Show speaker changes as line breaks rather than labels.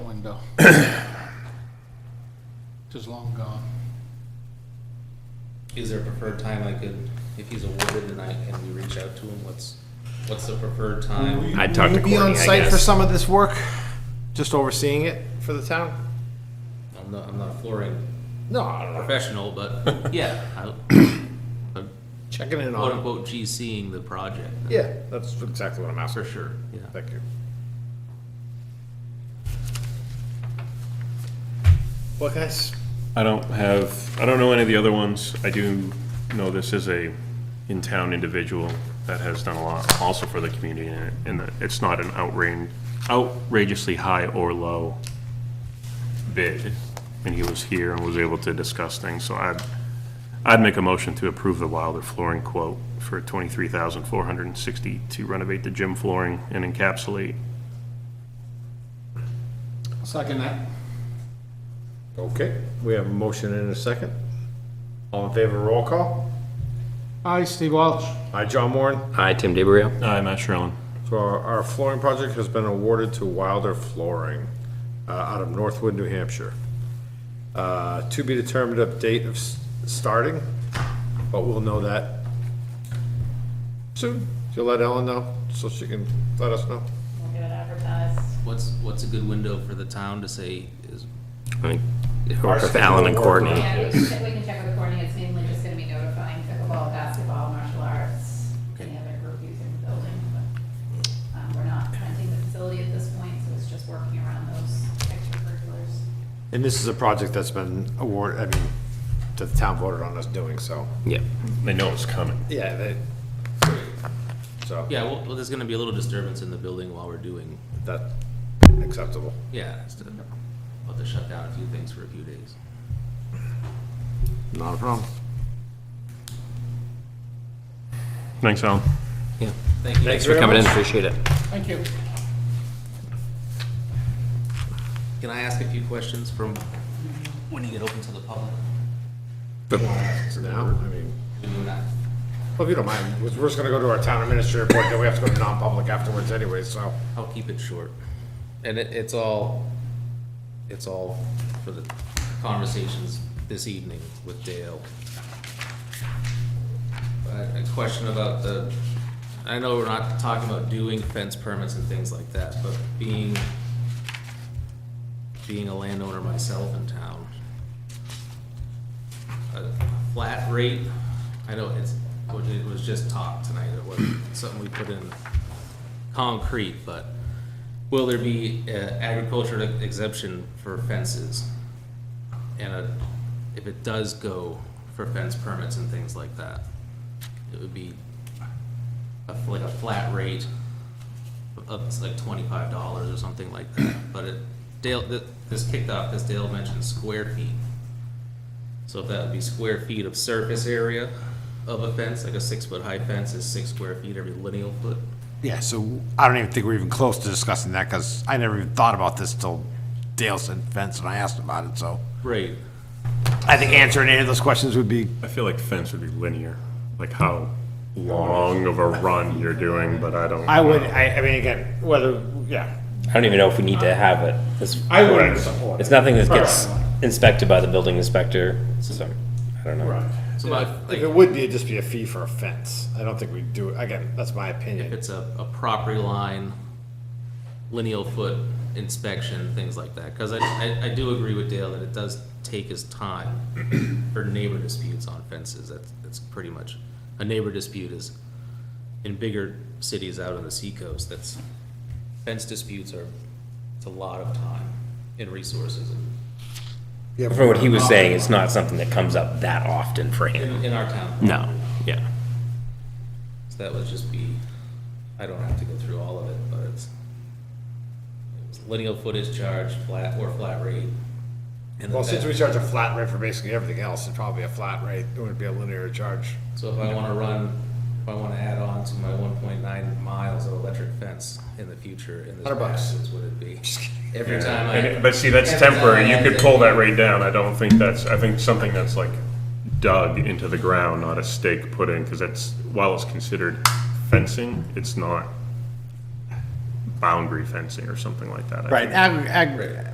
long ago. Just long gone.
Is there a preferred time I could, if he's awarded and I, and we reach out to him, what's, what's the preferred time?
I'd talk
Will
to
you Be on
Courtney, I
site for
guess.
some of this work, just overseeing it for the town?
I'm not, I'm not a flooring
No, I don't know,
professional, but yeah, I, I'm
checking in
quote
on it.
unquote GCing the project.
Yeah, that's exactly what I'm after. sure.
Yeah.
Thank you. Well, guys,
I don't have, I don't know any of the other ones. I do know this is a in-town individual that has done a lot also for the community and it- and that it's not an outrage, outrageously high or low bid. And he was here and was able to discuss things, so I'd, I'd make a motion to approve the Wilder flooring quote for twenty-three thousand four hundred and sixty to renovate the gym flooring and encapsulate.
I'll Second that.
Okay, we have a motion and a second. All in favor, roll call.
Hi, Steve Welch.
Aye, John Warren.
Hi, Tim DeBrio.
Aye, Matt Sherlin.
So our, our flooring project has been awarded to Wilder Flooring, uh, out of Northwood, New Hampshire. Uh, to be determined of date of s- starting, but we'll know that soon. You'll let Ellen know, so she can let us know.
We'll get it advertised.
What's, what's a good window for the town to say is,
I think it worked with Alan and Courtney.
Yeah, we can, check- we can check with Courtney, it's mainly just gonna be notifying pickleball, basketball, martial arts, any other group using the building, but, um, we're not renting the facility at this point, so it's just working around those extracurriculars.
And this is a project that's been award, I mean, that the town voted on us doing, so.
Yeah.
They know it's coming.
Yeah, they, so,
yeah, well, well, there's gonna be a little disturbance in the building while we're doing,
that's acceptable.
yeah, it's to, about to shut down a few things for a few days.
Not a problem.
Thanks, Alan.
Yeah.
Thank you.
Thanks for coming in. Appreciate it.
Thank you.
Can I ask a few questions from, when you get open to the public?
Now, I mean.
We do not-
Well, if you don't mind, we're we're just gonna go to our town administrator report, then we have to go to non-public afterwards anyway, so.
I'll keep it short. And it, it's all, it's all for the conversations this evening with Dale. Uh, A question about the, I know we're not talking about doing fence permits and things like that, but being, being a landowner myself in town, a flat rate, I know it's, it was just talk tonight, it wasn't something we put in concrete, but will there be uh, agricultural exemption for fences? And uh, if it does go for fence permits and things like that, it would be a, fl- like a flat rate of it's like twenty-five dollars or something like that, but it, Dale, th- this kicked off, this Dale mentioned square feet. So if that would be square feet of surface area of a fence, like a six-foot high fence is six square feet every lineal foot.
Yeah, so I don't even think we're even close to discussing that, cause I never even thought about this till Dale said fence and I asked about it, so.
Right.
I think answering any of those questions would be.
I feel like fence would be linear, like how long of a run you're doing, but I don't.
I would, I, I mean, again, whether, yeah.
I don't even know if we need to have it. It's,
I wouldn't support
it's nothing that gets inspected by the building inspector, so, I don't know.
So my, like,
If it would be, it'd just be a fee for a fence. I don't think we'd do, it. again, that's my
if
opinion.
it's a, a property line, lineal foot inspection, things like that, because I, I, I do agree with Dale that it does take his time for neighbor disputes on fences, that's, that's pretty much, a neighbor dispute is in bigger cities out on the seacoast, that's, fence disputes are, it's a lot of time and resources, and
From what he was saying, it's not something that comes up that often for him.
in, in our town.
No. Yeah.
So that would just be, I don't have to go through all of it, but it's, it was lineal footage charge, flat or flat rate. and
Well,
the
since we
fence.
charge a flat rate for basically everything else, it'd probably be a flat rate. It wouldn't be a linear charge.
So if I wanna run, if I wanna add on to my one point nine miles of electric fence in the future, in this
Hundred bucks.
passage, would it be? Every time I.
And- But see, that's
every time
temporary.
I
You
add
could
it-
pull that rate down. I don't think that's, I think something that's like dug into the ground, not a stake put in, because that's, while it's considered fencing, it's not boundary fencing or something like that. I
Right,
think.
ag, ag,